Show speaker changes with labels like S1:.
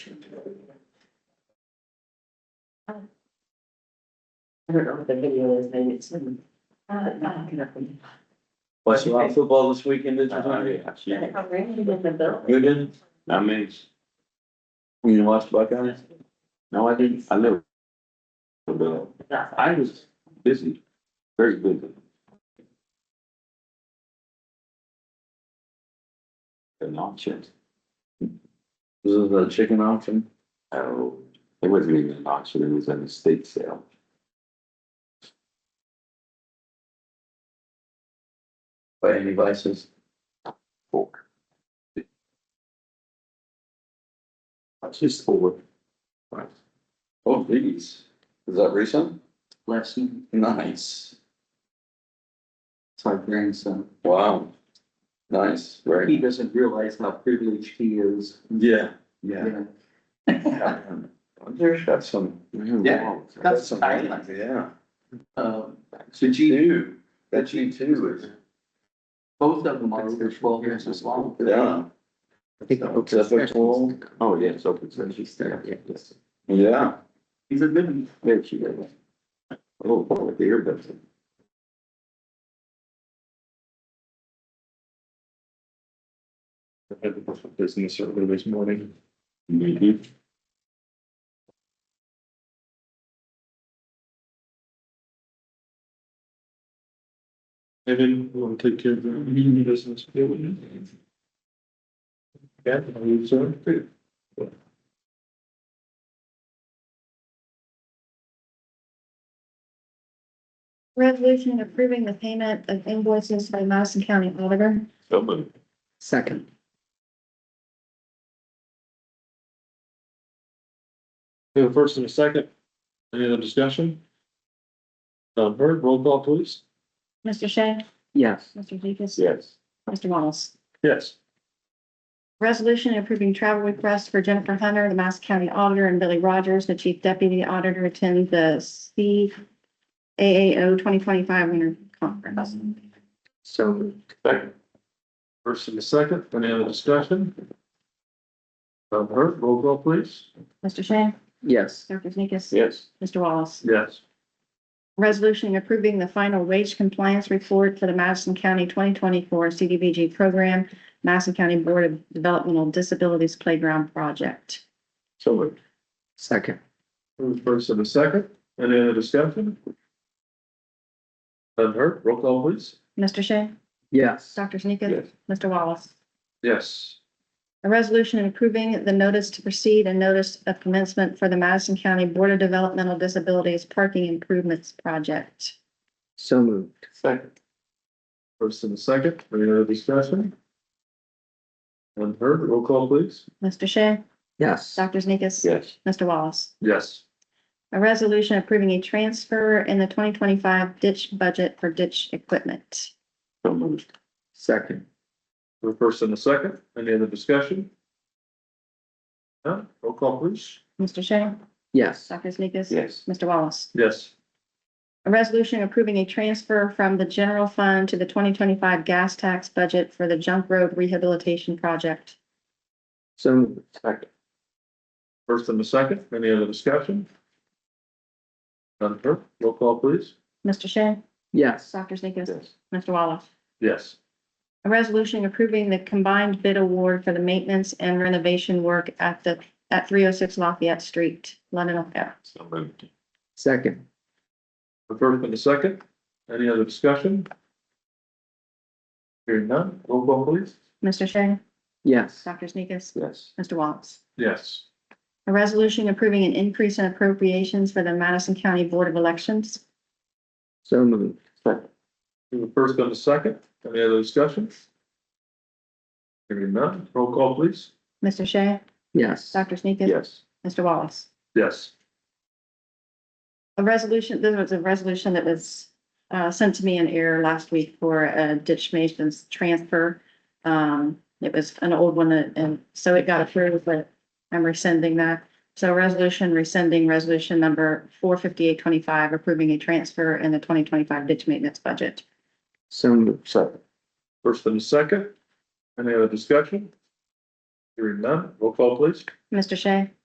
S1: I don't know what the video is, maybe it's. in- Uh, uh, you know, we-
S2: Watch a lot of football this weekend, did you?
S3: Oh, yeah, yeah.
S1: I'm really in the building.
S2: You didn't?
S3: I mean, it's-
S2: You didn't watch Buckeyes?
S3: no, I didn't, I never. But I was busy, very busy. An auction,
S2: This is a chicken auction.
S3: oh, it wasn't even an auction, it was an estate sale.
S2: By any vices?
S3: Four. That's just four. Right. Oh, these, is that recent?
S2: Lesson. Nice.
S4: It's our grandson.
S3: Wow. Nice,
S4: He
S3: right?
S4: doesn't realize how privileged he is.
S3: Yeah.
S2: Yeah.
S3: There's got some.
S4: Yeah, that's some highlights.
S3: Yeah.
S4: Um,
S3: So G two, that G two is.
S4: both of them are over twelve years as long.
S3: Yeah.
S5: I think
S3: So,
S5: open
S3: that's what
S5: session
S3: we'll-
S5: is-
S3: Oh, yeah, it's open
S5: She
S3: session.
S5: started, yeah, yes.
S3: Yeah,
S4: He's a good one.
S3: there she goes. Oh, oh, the earbuds.
S5: Business earlier this morning.
S3: Mhm.
S5: Evan, you want to take care of the union business? Yeah, we do. Yeah, I believe so. Good.
S6: Resolution approving the payment of invoices by Madison County Auditor.
S3: So moved.
S5: Second.
S7: We have a first and a second. Any other discussion? None heard. Roll call, please.
S6: Mr. Shea,
S5: Yes.
S6: Mr. Zekis,
S3: Yes.
S6: Mr. Wallace.
S7: Yes.
S6: Resolution approving travel requests for Jennifer Hunter, the Madison County Auditor, and Billy Rogers, the Chief Deputy Auditor, attend the C A A O twenty twenty-five winter conference.
S5: So moved.
S7: First and a second. Any other discussion? None heard. Roll call, please.
S6: Mr. Shea,
S5: yes.
S6: Mr. Zekis,
S3: Yes.
S6: Mr. Wallace.
S7: Yes.
S6: Resolution approving the final wage compliance report for the Madison County twenty twenty-four CDBG program, Madison County Board of Developmental Disabilities Playground Project.
S3: So moved.
S5: Second.
S7: We have a First and a second. Any other discussion? None heard. Roll call, please.
S6: Mr. Shea?
S5: Yes.
S6: Dr. Sneakus?
S3: Yes.
S6: Mr. Wallace?
S7: Yes.
S6: A resolution approving the notice to proceed and notice of commencement for the Madison County Board of Developmental Disabilities Parking Improvements Project.
S5: So moved.
S3: Second.
S7: First and a second. Any other discussion? None heard. Roll call, please.
S6: Mr. Shea?
S5: Yes.
S6: Dr. Sneakus?
S3: Yes.
S6: Mr. Wallace?
S7: Yes.
S6: A resolution approving a transfer in the twenty twenty-five ditch budget for ditch equipment.
S3: So moved.
S5: Second.
S7: We have a First and a second. Any other discussion? None. Roll call, please.
S6: Mr. Shea?
S5: Yes.
S6: Dr. Sneakus?
S3: Yes.
S6: Mr. Wallace?
S7: Yes.
S6: A resolution approving a transfer from the general fund to the twenty twenty-five gas tax budget for the junk road rehabilitation project.
S5: So moved.
S3: Second.
S7: First and the second, any other discussion? None heard, roll call please.
S6: Mr. Shea?
S5: Yes.
S6: Dr. Sneakus?
S3: Yes.
S6: Mr. Wallace?
S7: Yes.
S6: A resolution approving the combined bid award for the maintenance and renovation work at the, at three oh six Lafayette Street, London, Ohio.
S3: So moved.
S5: Second.
S7: The first and the second, any other discussion? Hearing none, roll call please.
S6: Mr. Shea?
S5: Yes.
S6: Dr. Sneakus?
S3: Yes.
S6: Mr. Wallace?
S7: Yes.
S6: A resolution approving an increase in appropriations for the Madison County Board of Elections.
S5: So moved.
S3: Second.
S7: The first and the second, any other discussion? Hearing none, roll call please.
S6: Mr. Shea?
S5: Yes.
S6: Dr. Sneakus?
S3: Yes.
S6: Mr. Wallace?
S7: Yes.
S6: a resolution, there was a resolution that was uh, sent to me in error last week for a ditch mason's transfer. Um, It was an old one, and- and so it got approved, but I'm rescinding that. So resolution rescinding resolution number four fifty-eight twenty-five, approving a transfer in the twenty twenty-five ditch maintenance budget.
S5: So moved.
S3: Second.
S7: First and the second, any other discussion? Hearing Hearing none, roll call please.
S6: Mr. Shea?